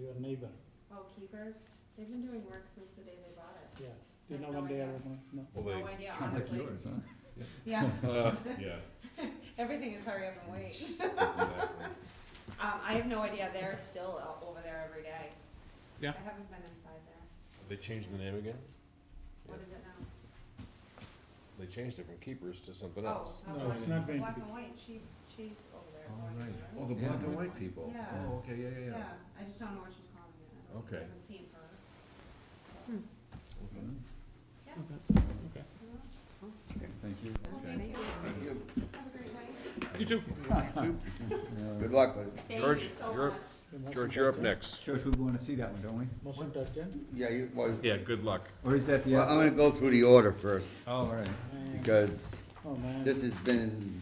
your neighbor, Oh, keepers, they've been doing work since the day they bought it. yeah. Do you I know have no when they are, idea. open? no? Well, No they, uh, idea, Kind of like honestly. yours, huh? Yeah, yeah, everything is hurry up and wait. exactly. Um, I have no idea, they're still o- over there every day. Yeah. I haven't been inside there. They changed the name again? What Yeah. is it now? They changed it from Keepers to something Oh, else. uh, No, black- it's not going to Black be. and white, she, she's over there. All watching right. her. Oh, the Yeah. black and white people? Yeah. Oh, okay, yeah, yeah, yeah. Yeah, I just don't know what she's calling it. I don't- Okay. I haven't seen her. so, Hmm. Okay. Yeah. Okay, okay. I don't know. Thank you. Well, Okay. thank you. Thank you. Have a great night. You too. Good luck with it. Thank George, you so you're- much. George, you're up next. George, we want to see that one, don't we? Motion to adjourn? Yeah, you, well, Yeah, good luck. Or is that the well, I'm other? gonna go through the order first, Oh, all right. And- because Oh, man. this has been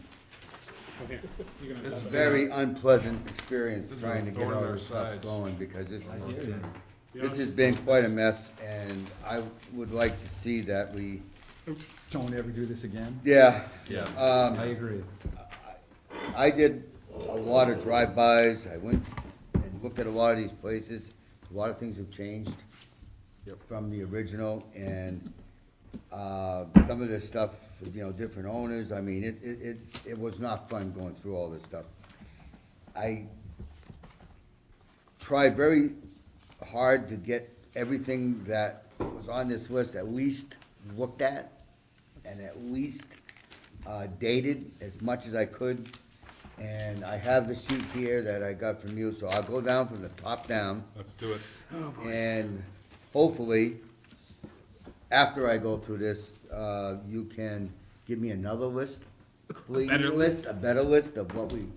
a This very unpleasant experience This is a trying to get thorn in all their this stuff sides. going, because this I hear is, you. this has been quite a mess, and I would like to see that we, Don't ever do this again. yeah, Yeah. um, I agree. I did a lot of drive-bys, I went and looked at a lot of these places, a lot of things have changed Yep. from the original, and, uh, some of this stuff, you know, different owners, I mean, it, it, it, it was not fun going through all this stuff. I tried very hard to get everything that was on this list at least looked at and at least uh, dated as much as I could. And I have the sheet here that I got from you, so I'll go down from the top down. Let's do it. And hopefully, after I go through this, uh, you can give me another list, please. better list? A better list of what we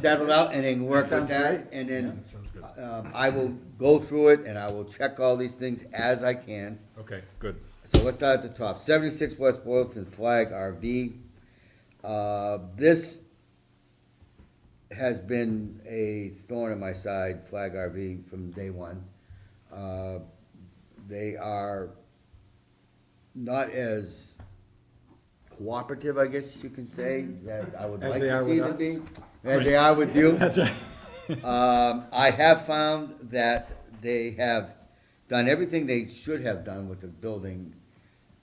settled out and then work with Sounds that. great. And then That sounds good. um, I will go through it and I will check all these things as I can. Okay, good. So let's start at the top. Seventy-six West Boylston Flag RV. Uh, This has been a thorn in my side, Flag RV, from day one. Uh, They are not as cooperative, I guess you can say, that I would As like they to are with see them us. be. As they are with you. That's right. Um, I have found that they have done everything they should have done with the building,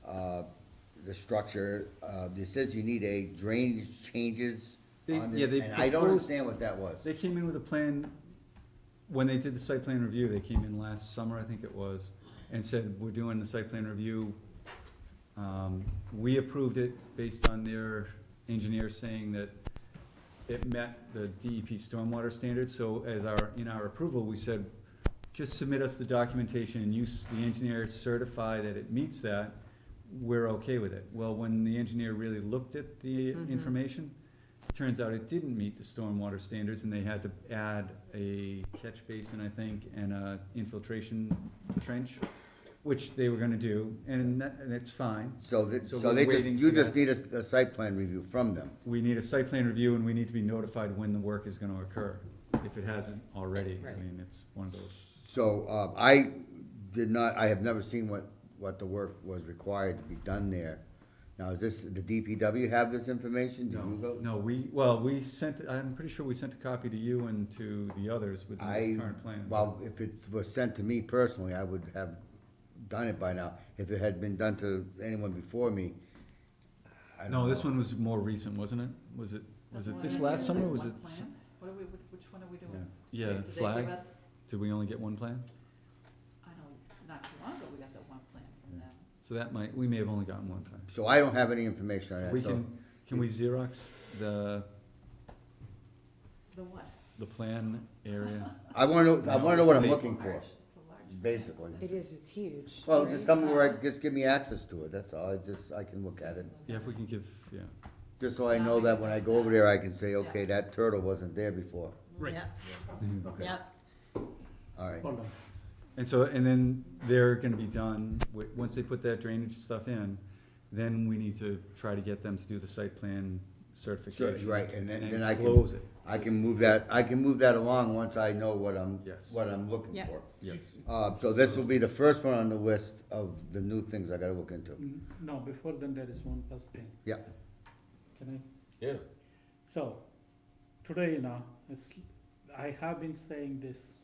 uh, the structure. Uh, it says you need a drainage changes They- on yeah, they this, and I don't proposed- understand what that was. They came in with a plan, when they did the site plan review, they came in last summer, I think it was, and said, we're doing the site plan review. Um, we approved it based on their engineer saying that it met the DEP stormwater standards, so as our, in our approval, we said, just submit us the documentation and use, the engineer certify that it meets that, we're okay with it. Well, when the engineer really looked at the information, turns out it didn't meet the stormwater standards and they had to add a catch basin, I think, and a infiltration trench, which they were gonna do, and that, and it's fine. So that, So so we're they just, waiting you for just that. need a, a site plan review from them. We need a site plan review and we need to be notified when the work is gonna occur, if it hasn't already. I Right. mean, it's one of those. So, uh, I did not, I have never seen what, what the work was required to be done there. Now, is this, the DPW have this information? Do you go? No, we, well, we sent, I'm pretty sure we sent a copy to you and to the others with the I, most current plan. well, if it was sent to me personally, I would have done it by now. If it had been done to anyone before me, I don't know. No, this one was more recent, wasn't it? Was it, was it this last summer, was it? s- What are we, which which one are we doing? Yeah, Did they flag, give us- did we only get one plan? I don't, not too long ago, we got the one plan from them. So that might, we may have only gotten one time. So I don't have any information on We that, so, can, can we Xerox the, The what? the plan area? I wanna know, I No, wanna know what it's I'm the- looking for, Large, it's a large. basically. It is, it's huge. Well, right? just somewhere where I, just give me access to it, that's all, I just, I can look at it. Yeah, if we can give, yeah, Just so I know that when I go over there, I can say, okay, that turtle wasn't there before. Right. Yep, Okay, yep. all right. Hold on. and so, and then they're gonna be done, wi- once they put that drainage stuff in, then we need to try to get them to do the site plan certification. right, and then- then I can- Close it, I can move that, I can move that along once I know what I'm, Yes. what I'm looking Yep. for. yes. Uh, so this will be the first one on the list of the new things I gotta look into. N- No, before then, there is one first thing. Yeah, Can I? Yeah. So, today, you know, it's, I have been saying this